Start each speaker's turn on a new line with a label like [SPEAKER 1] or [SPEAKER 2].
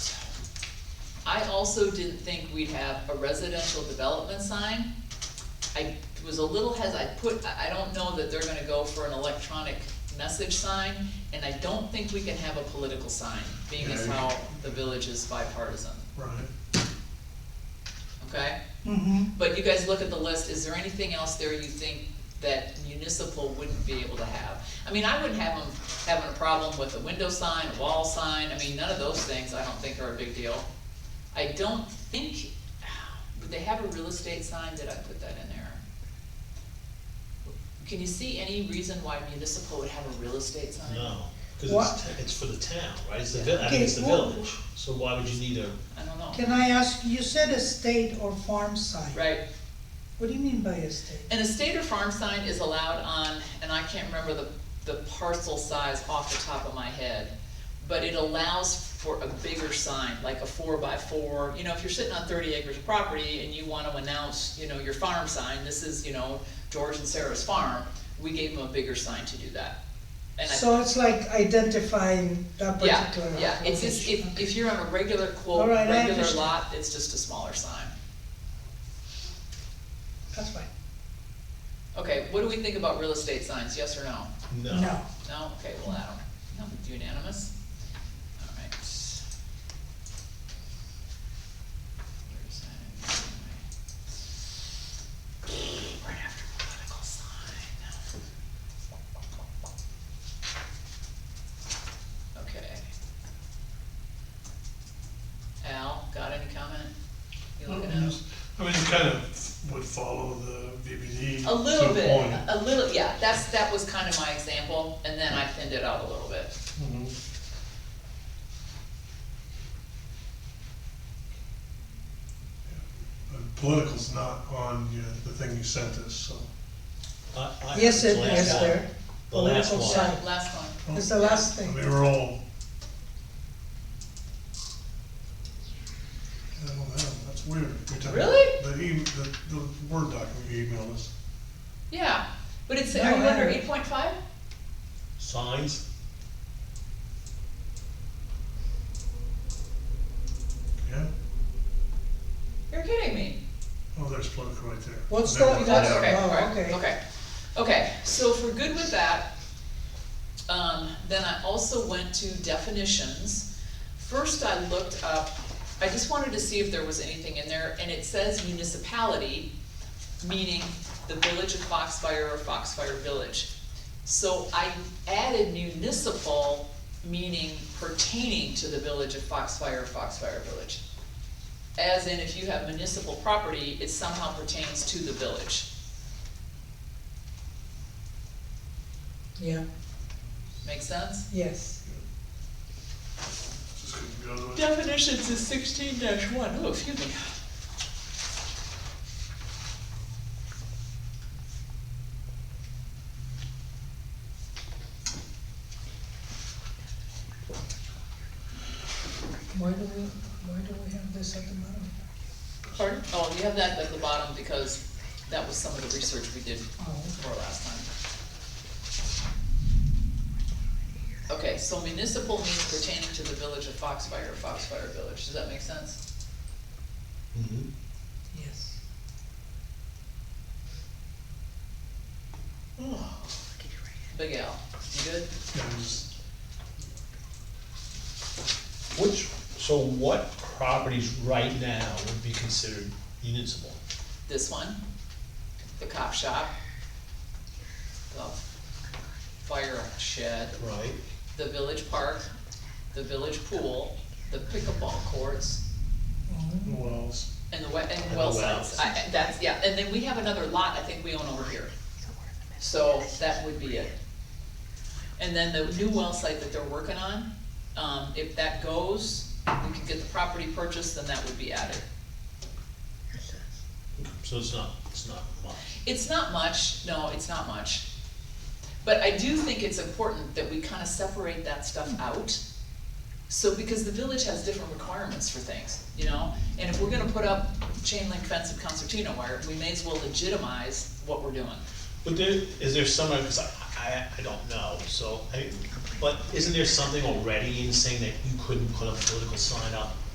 [SPEAKER 1] I also didn't think we'd have a residential development sign. I was a little hes, I put, I I don't know that they're gonna go for an electronic message sign, and I don't think we can have a political sign, being as
[SPEAKER 2] Yeah.
[SPEAKER 1] how the village is bipartisan,
[SPEAKER 2] Right.
[SPEAKER 1] okay?
[SPEAKER 3] Mm-hmm.
[SPEAKER 1] But you guys look at the list, is there anything else there you think that municipal wouldn't be able to have? I mean, I wouldn't have them having a problem with a window sign, a wall sign, I mean, none of those things I don't think are a big deal. I don't think, would they have a real estate sign, did I put that in there? Can you see any reason why municipal would have a real estate sign?
[SPEAKER 4] No, because
[SPEAKER 3] What?
[SPEAKER 4] it's, ta- it's for the town, right, it's the,
[SPEAKER 1] Yeah.
[SPEAKER 4] vil- I mean, it's the
[SPEAKER 3] Okay, well-
[SPEAKER 4] village, so why would you need a,
[SPEAKER 1] I don't know,
[SPEAKER 3] Can I ask, you said estate or farm site?
[SPEAKER 1] right?
[SPEAKER 3] What do you mean by estate?
[SPEAKER 1] An estate or farm sign is allowed on, and I can't remember the, the parcel size off the top of my head, but it allows for a bigger sign, like a four by four, you know, if you're sitting on thirty acres of property and you wanna announce, you know, your farm sign, this is, you know, George and Sarah's farm, we gave them a bigger sign to do that. And I-
[SPEAKER 3] So it's like identifying that
[SPEAKER 1] yeah,
[SPEAKER 3] particular.
[SPEAKER 1] yeah, it's just, if,
[SPEAKER 3] location.
[SPEAKER 1] if you're on a regular
[SPEAKER 3] All
[SPEAKER 1] quote,
[SPEAKER 3] right, I
[SPEAKER 1] regular
[SPEAKER 3] understand.
[SPEAKER 1] lot, it's just a smaller sign.
[SPEAKER 3] That's fine,
[SPEAKER 1] Okay, what do we think about real estate signs, yes or no?
[SPEAKER 4] no?
[SPEAKER 3] no.
[SPEAKER 1] No, okay, well, Adam, no, unanimous, alright. Right after political sign. Okay. Al, got any comment? You
[SPEAKER 2] I mean,
[SPEAKER 1] looking at?
[SPEAKER 2] it kind of would follow the VBD.
[SPEAKER 1] A little
[SPEAKER 2] to
[SPEAKER 1] bit,
[SPEAKER 2] point.
[SPEAKER 3] Uh,
[SPEAKER 1] a little, yeah, that's, that was kind of my example, and then I thinned it out a little bit.
[SPEAKER 2] Mhm. But Political's not on you know, the thing you sent us, so.
[SPEAKER 4] I- I-
[SPEAKER 3] Yes, it
[SPEAKER 4] the last
[SPEAKER 3] is
[SPEAKER 4] one.
[SPEAKER 3] there.
[SPEAKER 4] The last
[SPEAKER 3] Political
[SPEAKER 4] one.
[SPEAKER 3] sign.
[SPEAKER 1] Last one.
[SPEAKER 3] It's the last thing.
[SPEAKER 2] We were all. I don't know, that's weird. We took
[SPEAKER 1] Really?
[SPEAKER 2] The, e- the, the Word document you emailed us.
[SPEAKER 1] Yeah, but it's,
[SPEAKER 3] No,
[SPEAKER 1] are you
[SPEAKER 3] I
[SPEAKER 1] under
[SPEAKER 3] don't.
[SPEAKER 1] eight point five?
[SPEAKER 4] Signs,
[SPEAKER 2] Yeah?
[SPEAKER 1] You're kidding me.
[SPEAKER 2] Oh, there's political right there.
[SPEAKER 3] What's
[SPEAKER 2] Never
[SPEAKER 3] that?
[SPEAKER 2] mind.
[SPEAKER 3] That's-
[SPEAKER 1] Okay, okay,
[SPEAKER 3] oh,
[SPEAKER 1] alright,
[SPEAKER 3] okay.
[SPEAKER 1] okay. Okay, so if we're good with that, um, then I also went to definitions. First, I looked up, I just wanted to see if there was anything in there, and it says municipality, meaning the village of Foxfire or Foxfire Village. So I added municipal, meaning pertaining to the village of Foxfire or Foxfire Village. As in, if you have municipal property, it somehow pertains to the village.
[SPEAKER 3] Yeah,
[SPEAKER 1] Make sense?
[SPEAKER 3] yes.
[SPEAKER 2] Just couldn't go to it.
[SPEAKER 1] Definitions is sixteen dash one. Oh, excuse me.
[SPEAKER 3] Why do we, why do we have this at the bottom?
[SPEAKER 1] Pardon? Oh, you have that at the bottom because that was some of the research we did
[SPEAKER 3] Oh,
[SPEAKER 1] for last time. Okay, so municipal means pertaining to the village of Foxfire or Foxfire Village. Does that make sense?
[SPEAKER 4] Mhm.
[SPEAKER 3] Mm-hmm. yes.
[SPEAKER 1] Oh, Big Al, you good?
[SPEAKER 2] Yeah, it was-
[SPEAKER 4] which, so what properties right now would be considered municipal?
[SPEAKER 1] This one, the cop shop, the fire shed,
[SPEAKER 4] Right,
[SPEAKER 1] the village park, the village pool, the pickleball courts,
[SPEAKER 3] Oh,
[SPEAKER 2] Who else?
[SPEAKER 1] and the we, and
[SPEAKER 4] the
[SPEAKER 1] well
[SPEAKER 4] wells.
[SPEAKER 1] sites. I, I- that's, yeah, and then we have another lot I think we own over here. So that would be it. And then the new well site that they're working on, um, if that goes, we can get the property purchased, then that would be added.
[SPEAKER 4] so it's not, it's not much.
[SPEAKER 1] It's not much, no, it's not much. But I do think it's important that we kind of separate that stuff out. So, because the village has different requirements for things, you know? And if we're gonna put up chain link fence and concertina wire, we may as well legitimize what we're doing.
[SPEAKER 4] But there, is there somewhere, because I, I, I don't know, so, I, but isn't there something already in saying that you couldn't put a political sign up